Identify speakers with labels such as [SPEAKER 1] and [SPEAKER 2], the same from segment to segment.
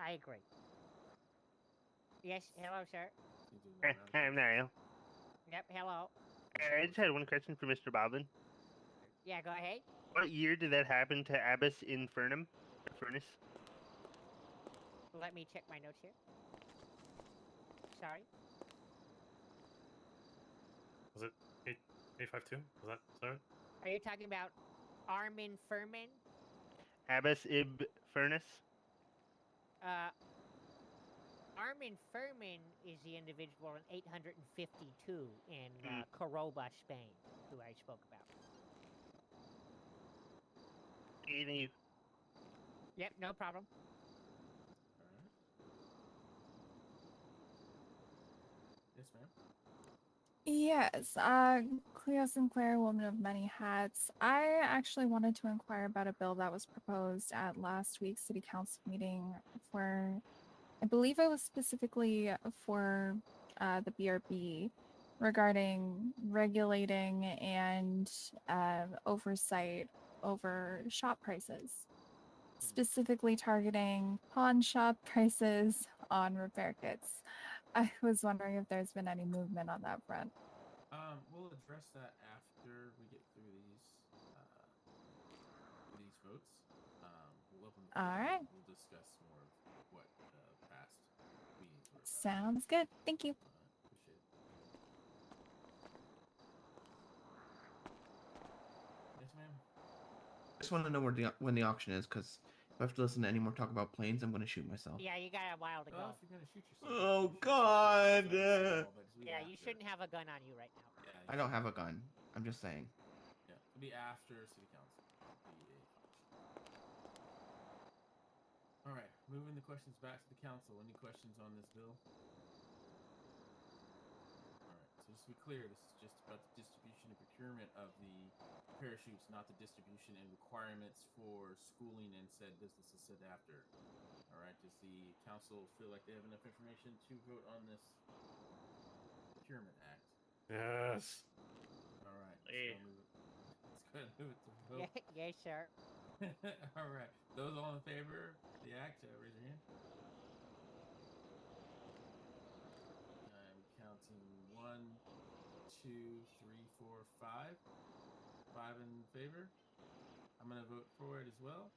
[SPEAKER 1] I agree. Yes, hello, sir.
[SPEAKER 2] I'm Niall.
[SPEAKER 1] Yep, hello.
[SPEAKER 2] I just had one question for Mr. Boblin.
[SPEAKER 1] Yeah, go ahead.
[SPEAKER 2] What year did that happen to Abbas Infernum? Furnace?
[SPEAKER 1] Let me check my notes here. Sorry.
[SPEAKER 3] Eight five two. Was that is that right?
[SPEAKER 1] Are you talking about Armin Furman?
[SPEAKER 2] Abbas Ib Furnace?
[SPEAKER 1] Uh, Armin Furman is the individual in 852 in uh, Coroba, Spain, who I spoke about.
[SPEAKER 2] You think you-
[SPEAKER 1] Yep, no problem.
[SPEAKER 4] Yes, ma'am.
[SPEAKER 5] Yes, uh, Cleo Sinclair, woman of many hats. I actually wanted to inquire about a bill that was proposed at last week's city council meeting for, I believe it was specifically for uh, the BRB regarding regulating and uh, oversight over shop prices, specifically targeting pawn shop prices on repair kits. I was wondering if there's been any movement on that front.
[SPEAKER 4] Um, we'll address that after we get through these uh, these votes. Um, we'll open the floor
[SPEAKER 5] All
[SPEAKER 4] and
[SPEAKER 5] right.
[SPEAKER 4] We'll discuss more of what uh, past meetings were about.
[SPEAKER 5] Sounds good. Thank you.
[SPEAKER 4] All right, appreciate it. Yes, ma'am.
[SPEAKER 6] just want to know where the au- when the auction is because if I have to listen to any more talk about planes, I'm going to shoot myself.
[SPEAKER 1] Yeah, you got a while to go.
[SPEAKER 4] Oh, if you're gonna shoot yourself,
[SPEAKER 6] Oh,
[SPEAKER 4] you should shoot yourself.
[SPEAKER 6] God,
[SPEAKER 4] It's not
[SPEAKER 6] uh,
[SPEAKER 4] small, but it's- we
[SPEAKER 1] yeah, you
[SPEAKER 4] after-
[SPEAKER 1] shouldn't have a gun on you right now.
[SPEAKER 4] Yeah, you
[SPEAKER 6] I don't have a gun. I'm just saying.
[SPEAKER 4] shouldn't. Yeah, it'll be after city council. It'll be a- All right, moving the questions back to the council. Any questions on this bill? All right, so just to be clear, this is just about the distribution and procurement of the parachutes, not the distribution and requirements for schooling and said businesses said after. All right, does the council feel like they have enough information to vote on this procurement act?
[SPEAKER 3] Yes.
[SPEAKER 4] All right.
[SPEAKER 2] Yeah.
[SPEAKER 4] Let's go ahead and move it to vote.
[SPEAKER 1] Yeah, Oh. yes, sir.
[SPEAKER 4] all right. Those all in favor of the act, uh, raise your hand. I'm counting one, two, three, four, five. Five in favor. I'm gonna vote for it as well.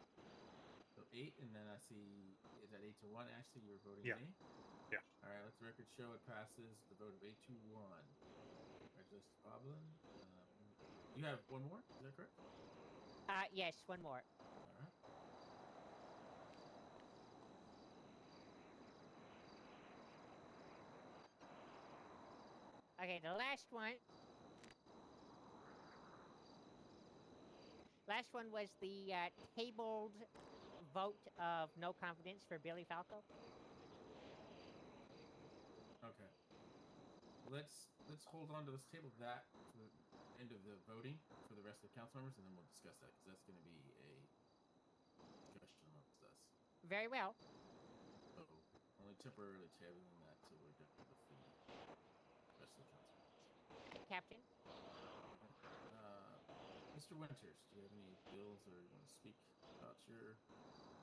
[SPEAKER 4] So eight, and then I see is that eight to one. Actually, you were voting
[SPEAKER 3] Yeah.
[SPEAKER 4] me.
[SPEAKER 3] Yeah.
[SPEAKER 4] All right. Let the record show it passes the vote of eight to one. Congratulations, Boblin. Um, you have one more. Is that correct?
[SPEAKER 1] Uh, yes, one more.
[SPEAKER 4] Alright.
[SPEAKER 1] Okay, the last one. Last one was the uh, tabled vote of no confidence for Billy Falco.
[SPEAKER 4] Okay. Let's let's hold on to this table that to the end of the voting for the rest of the council members, and then we'll discuss that because that's going to be a discussion amongst us.
[SPEAKER 1] Very well.
[SPEAKER 4] So only temporarily tabling that till we're done with the rest of the council.
[SPEAKER 1] Captain.
[SPEAKER 4] Uh, Mr. Winters, do you have any bills or you want to speak about your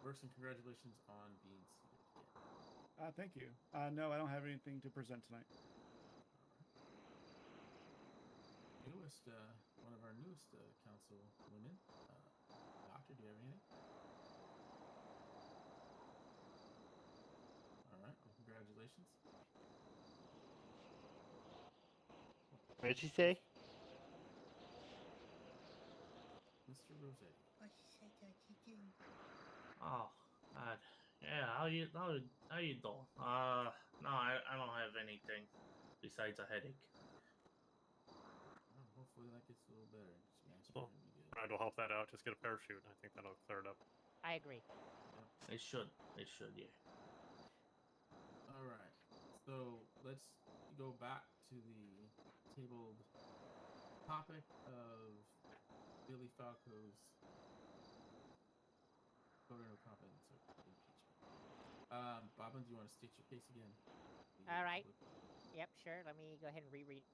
[SPEAKER 4] works? And congratulations on being seated again.
[SPEAKER 7] Uh, thank you. Uh, no, I don't have anything to present tonight.
[SPEAKER 4] newest uh, one of our newest uh, council women. Uh, doctor, do you have anything? All right. Well, congratulations.
[SPEAKER 2] What did she say?
[SPEAKER 4] Mr. Rossetti.
[SPEAKER 8] What you say that you do?
[SPEAKER 9] Oh, God. Yeah, how you how you- how you doing? Uh, no, I, I don't have anything besides a headache.
[SPEAKER 4] Well, hopefully that gets a little better. Just be honest,
[SPEAKER 3] Well,
[SPEAKER 4] we're gonna be good.
[SPEAKER 3] Pride will help that out. Just get a parachute. and I think that'll clear it up.
[SPEAKER 1] I agree.
[SPEAKER 9] It should. It should. Yeah.
[SPEAKER 4] All right. So let's go back to the tabled topic of Billy Falco's voter no confidence or impeachment. Um, Bobbin, do you want to state your case again? The
[SPEAKER 1] All right.
[SPEAKER 4] public-
[SPEAKER 1] Yep, sure. Let me go ahead and reread.